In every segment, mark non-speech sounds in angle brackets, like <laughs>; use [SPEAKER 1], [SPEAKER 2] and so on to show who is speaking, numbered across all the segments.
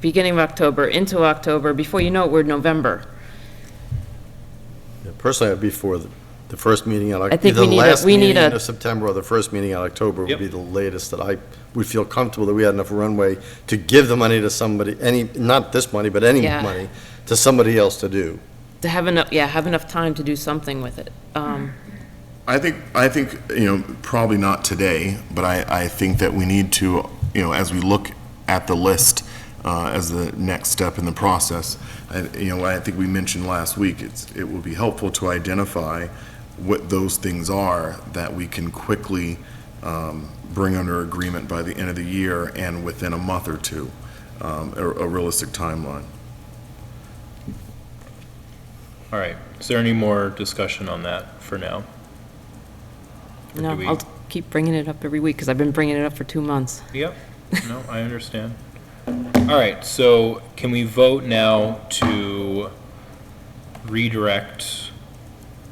[SPEAKER 1] beginning of October, into October, before you know it, we're November.
[SPEAKER 2] Yeah, Personally, I'd be for the the first meeting out.
[SPEAKER 1] I think we need a-
[SPEAKER 2] Either the last
[SPEAKER 1] we need
[SPEAKER 2] meeting
[SPEAKER 1] a-
[SPEAKER 2] of September or the first meeting out October would
[SPEAKER 3] Yep.
[SPEAKER 2] be the latest that I would feel comfortable that we had enough runway to give the money to somebody, any, not this money, but any
[SPEAKER 1] Yeah.
[SPEAKER 2] money, to somebody else to do.
[SPEAKER 1] To have enough, yeah, have enough time to do something with it.
[SPEAKER 3] Hmm.
[SPEAKER 1] Um,
[SPEAKER 4] I think, I think, you know, probably not today, but I, I think that we need to, you know, as we look at the list uh, as the next step in the process, I- you know, I think we mentioned last week, it's, it will be helpful to identify what those things are that we can quickly um, bring under agreement by the end of the year and within a month or two, um, a a realistic timeline.
[SPEAKER 3] All right, is there any more discussion on that for now? Or
[SPEAKER 1] No,
[SPEAKER 3] do we-
[SPEAKER 1] I'll keep bringing it up every week, because I've been bringing it up for two months.
[SPEAKER 3] Yep, no, I understand. All right, so can we vote now to redirect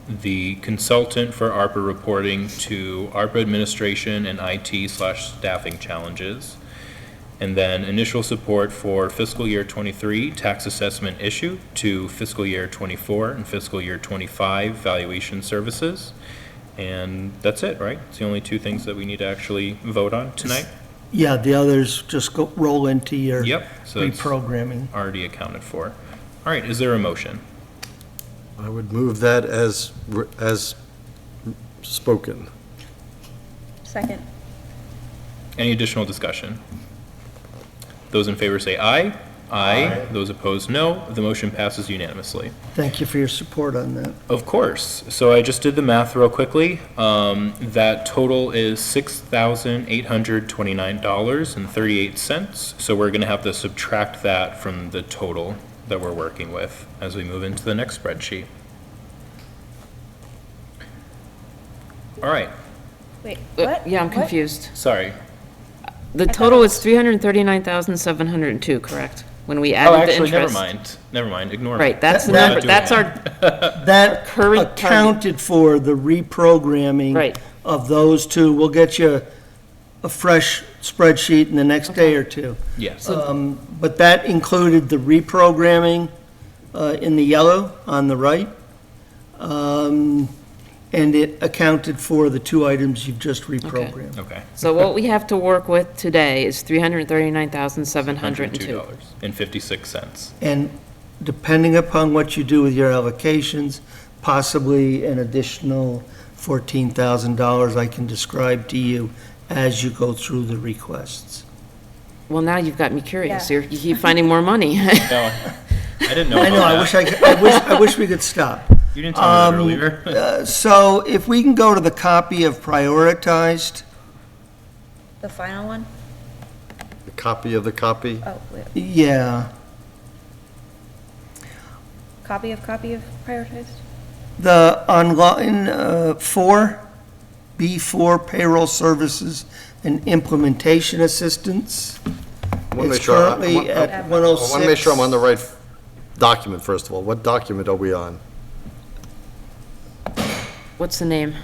[SPEAKER 3] the consultant for ARPA reporting to ARPA administration and IT slash staffing challenges? And then initial support for fiscal year twenty-three tax assessment issue to fiscal year twenty-four and fiscal year twenty-five valuation services. And that's it, right? It's the only two things that we need to actually vote on tonight?
[SPEAKER 5] Yeah, the others just go, roll into your
[SPEAKER 3] Yep, so it's
[SPEAKER 5] reprogramming.
[SPEAKER 3] already accounted for. All right, is there a motion?
[SPEAKER 2] I would move that as, re- as spoken.
[SPEAKER 6] Second.
[SPEAKER 3] Any additional discussion? Those in favor say aye. Aye. Those opposed, no. The motion passes unanimously.
[SPEAKER 5] Thank you for your support on that.
[SPEAKER 3] Of course. So I just did the math real quickly. Um, that total is six thousand eight hundred twenty-nine dollars and thirty-eight cents. So we're gonna have to subtract that from the total that we're working with as we move into the next spreadsheet. All right,
[SPEAKER 6] Wait,
[SPEAKER 1] Uh,
[SPEAKER 6] what?
[SPEAKER 1] Yeah, I'm
[SPEAKER 6] What?
[SPEAKER 1] confused.
[SPEAKER 3] sorry.
[SPEAKER 1] The
[SPEAKER 6] thought
[SPEAKER 1] total
[SPEAKER 6] it
[SPEAKER 1] is 339,702, correct? When we
[SPEAKER 3] Oh,
[SPEAKER 1] added the interest.
[SPEAKER 3] actually, never mind. Never mind. Ignore it.
[SPEAKER 1] Right, that's the
[SPEAKER 5] That-
[SPEAKER 1] number, that's our,
[SPEAKER 5] That
[SPEAKER 1] Uh, current target.
[SPEAKER 5] accounted for the reprogramming
[SPEAKER 1] Right.
[SPEAKER 5] of those two. We'll get you a fresh spreadsheet in the next day or two.
[SPEAKER 1] Oh.
[SPEAKER 3] Yes.
[SPEAKER 5] Um, But that included the reprogramming uh, in the yellow on the right. Um, And it accounted for the two items you've just reprogrammed.
[SPEAKER 3] Okay. <laughs>
[SPEAKER 1] so what we have to work with today is 339,702.
[SPEAKER 3] $102 and 56 cents.
[SPEAKER 5] And depending upon what you do with your allocations, possibly an additional $14,000 I can describe to you as you go through the requests.
[SPEAKER 1] Well, now you've got me curious.
[SPEAKER 6] Yeah.
[SPEAKER 1] You're, you keep finding more money.
[SPEAKER 3] <laughs>
[SPEAKER 1] <laughs>
[SPEAKER 3] No, I didn't know
[SPEAKER 5] I know, I
[SPEAKER 3] about
[SPEAKER 5] wish
[SPEAKER 3] that.
[SPEAKER 5] I, could- I wish, I wish we could stop.
[SPEAKER 3] You didn't tell me that earlier.
[SPEAKER 5] Uh, So if we can go to the copy of prioritized,
[SPEAKER 6] The final one?
[SPEAKER 2] A copy of the copy?
[SPEAKER 6] Oh, wait,
[SPEAKER 5] yeah,
[SPEAKER 6] copy of copy of prioritized?
[SPEAKER 5] the online, uh, four, B4 payroll services and implementation assistance.
[SPEAKER 2] I wanna
[SPEAKER 5] It's
[SPEAKER 2] make sure I- I
[SPEAKER 5] currently
[SPEAKER 2] want- I-
[SPEAKER 5] at
[SPEAKER 2] I want to make sure I'm on the
[SPEAKER 5] 106.
[SPEAKER 2] right document, first of all. What document are we on?
[SPEAKER 1] What's the name?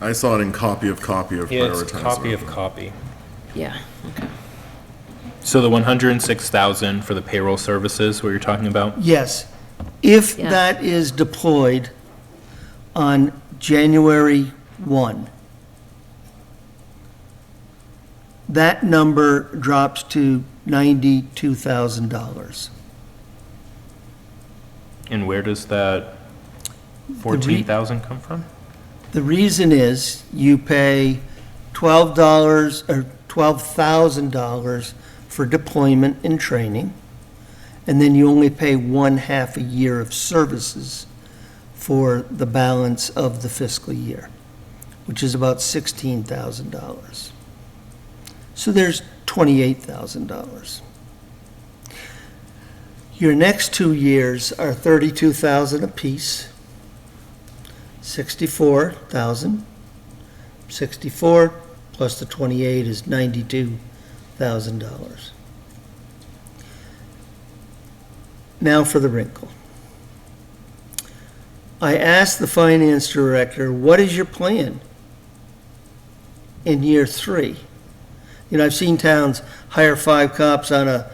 [SPEAKER 4] I saw it in copy of copy of
[SPEAKER 3] Yeah, <laughs> it's
[SPEAKER 4] prioritized.
[SPEAKER 3] copy of copy.
[SPEAKER 1] Yeah, okay.
[SPEAKER 3] So the 106,000 for the payroll services, what you're talking about?
[SPEAKER 5] Yes. If
[SPEAKER 1] Yeah.
[SPEAKER 5] that is deployed on January 1, that number drops to $92,000.
[SPEAKER 3] And where does that 14,000 come from?
[SPEAKER 5] The reason is you pay twelve dollars or twelve thousand dollars for deployment and training, and then you only pay one half a year of services for the balance of the fiscal year, which is about sixteen thousand dollars. So there's twenty-eight thousand dollars. Your next two years are thirty-two thousand apiece. 64,000. 64 plus the 28 is $92,000. Now for the wrinkle. I asked the finance director, what is your plan in year three? You know, I've seen towns hire five cops on a